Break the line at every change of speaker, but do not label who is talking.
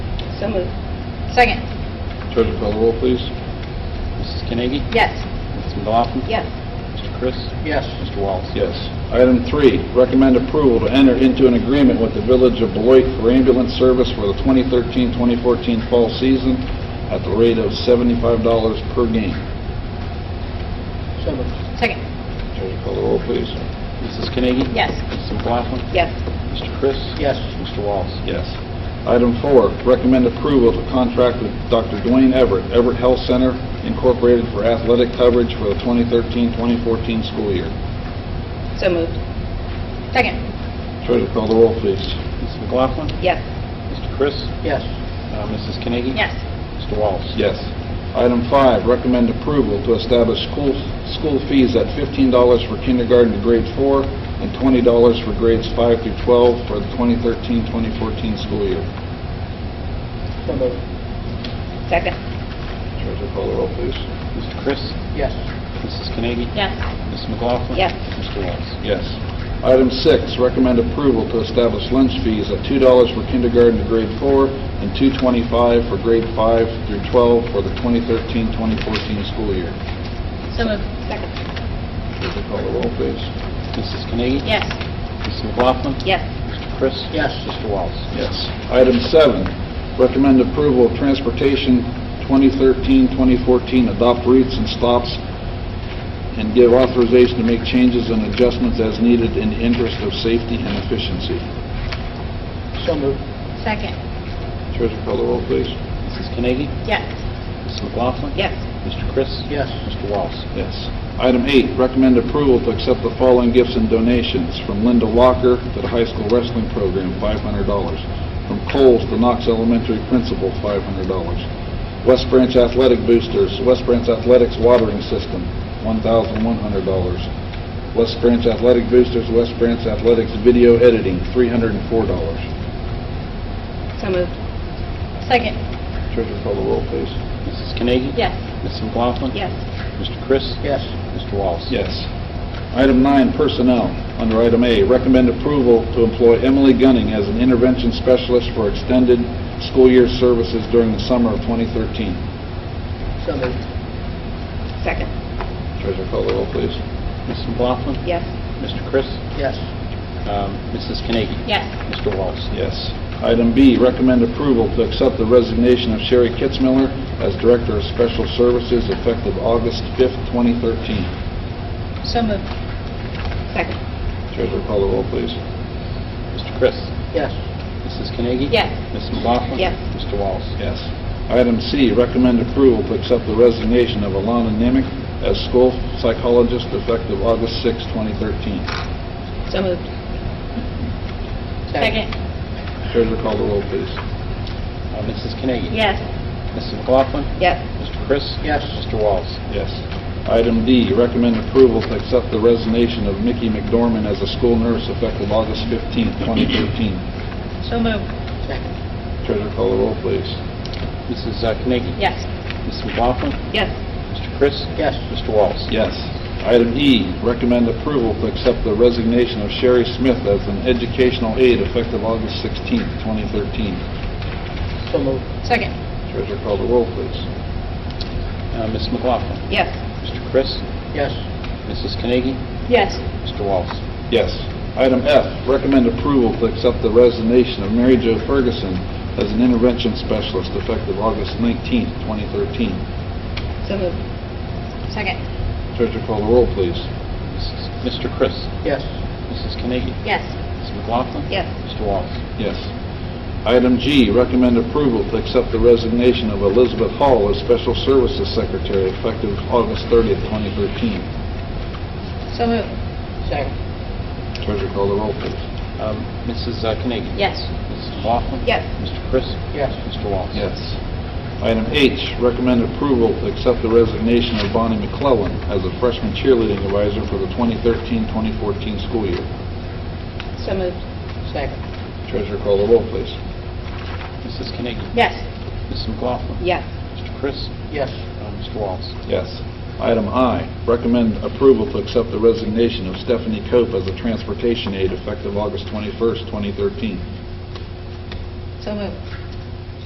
So moved.
Second.
Treasurer call the roll, please.
Mrs. Carnegie?
Yes.
Mr. McLaughlin?
Yes.
Mr. Chris?
yes,
Mr. Wallace?
Yes. Item three, recommend approval to enter into an agreement with the Village of Beloit for ambulance service for the 2013-2014 fall season at the rate of $75 per game.
so moved,
Second.
Treasurer call the roll, please.
Mrs. Carnegie?
Yes.
Mr. McLaughlin?
Yes.
Mr. Chris?
yes,
Mr. Wallace?
Yes. Item four, recommend approval to contract with Dr. Dwayne Everett, Everett Health Center Incorporated for athletic coverage for the 2013-2014 school year.
So moved.
Second.
Treasurer call the roll, please.
Mrs. McLaughlin?
Yes.
Mr. Chris?
yes,
Uh, Mrs. Carnegie?
Yes.
Mr. Wallace?
Yes. Item five, recommend approval to establish school, school fees at $15 for kindergarten to grade four and $20 for grades five through 12 for the 2013-2014 school year.
so moved,
Second.
Treasurer call the roll, please.
Mr. Chris?
yes,
Mrs. Carnegie?
Yes.
Mrs. McLaughlin?
Yes.
Mr. Wallace?
Yes. Item six, recommend approval to establish lunch fees at $2 for kindergarten to grade four and $2.25 for grade five through 12 for the 2013-2014 school year.
So moved. Second.
Treasurer call the roll, please.
Mrs. Carnegie?
Yes.
Mrs. McLaughlin?
Yes.
Mr. Chris?
Yes.
Mr. Wallace?
Yes. Item seven, recommend approval of transportation 2013-2014, adopt routes and stops, and give authorization to make changes and adjustments as needed in the interest of safety and efficiency.
so moved,
Second.
Treasurer call the roll, please.
Mrs. Carnegie?
Yes.
Mrs. McLaughlin?
Yes.
Mr. Chris?
yes,
Mr. Wallace?
Yes. Item eight, recommend approval to accept the following gifts and donations. From Linda Walker to the high school wrestling program, $500. From Coles to Knox Elementary Principal, $500. West Branch Athletic Boosters, West Branch Athletics Watering System, $1,100. West Branch Athletic Boosters, West Branch Athletics Video Editing, $304.
So moved.
Second.
Treasurer call the roll, please.
Mrs. Carnegie?
Yes.
Mrs. McLaughlin?
Yes.
Mr. Chris?
yes,
Mr. Wallace?
Yes. Item nine, personnel. Under item A, recommend approval to employ Emily Gunning as an intervention specialist for extended school year services during the summer of 2013.
so moved,
Second.
Treasurer call the roll, please.
Mrs. McLaughlin?
Yes.
Mr. Chris?
yes,
Um, Mrs. Carnegie?
Yes.
Mr. Wallace?
Yes. Item B, recommend approval to accept the resignation of Sherry Kitzmiller as Director of Special Services effective August 5th, 2013.
So moved.
Second.
Treasurer call the roll, please.
Mr. Chris?
yes,
Mrs. Carnegie?
Yes.
Mrs. McLaughlin?
Yes.
Mr. Wallace?
Yes. Item C, recommend approval to accept the resignation of Alana Nemick as school psychologist effective August 6, 2013.
So moved.
Second.
Treasurer call the roll, please.
Uh, Mrs. Carnegie?
Yes.
Mrs. McLaughlin?
Yes.
Mr. Chris?
Yes.
Mr. Wallace?
Yes. Item D, recommend approval to accept the resignation of Mickey McDorman as a school nurse effective August 15, 2013.
So moved.
second,
Treasurer call the roll, please.
Mrs. uh, Carnegie?
Yes.
Mrs. McLaughlin?
Yes.
Mr. Chris?
yes,
Mr. Wallace?
Yes. Item E, recommend approval to accept the resignation of Sherry Smith as an educational aide effective August 16, 2013.
so moved,
Second.
Treasurer call the roll, please.
Uh, Mrs. McLaughlin?
Yes.
Mr. Chris?
yes,
Mrs. Carnegie?
Yes.
Mr. Wallace?
Yes. Item F, recommend approval to accept the resignation of Mary Jo Ferguson as an intervention specialist effective August 19, 2013.
So moved.
Second.
Treasurer call the roll, please.
Mrs. Mr. Chris?
yes,
Mrs. Carnegie?
Yes.
Mrs. McLaughlin?
Yes.
Mr. Wallace?
Yes. Item G, recommend approval to accept the resignation of Elizabeth Hall as Special Services Secretary effective August 30, 2013.
So moved.
second,
Treasurer call the roll, please.
Um, Mrs. uh, Carnegie?
Yes.
Mrs. McLaughlin?
Yes.
Mr. Chris?
yes,
Mr. Wallace?
Yes. Item H, recommend approval to accept the resignation of Bonnie McClellan as a freshman cheerleading advisor for the 2013-2014 school year.
So moved.
second,
Treasurer call the roll, please.
Mrs. Carnegie?
Yes.
Mrs. McLaughlin?
Yes.
Mr. Chris?
yes,
Uh, Mr. Wallace?
Yes. Item I, recommend approval to accept the resignation of Stephanie Cope as a transportation aide effective August 21st, 2013.
So moved.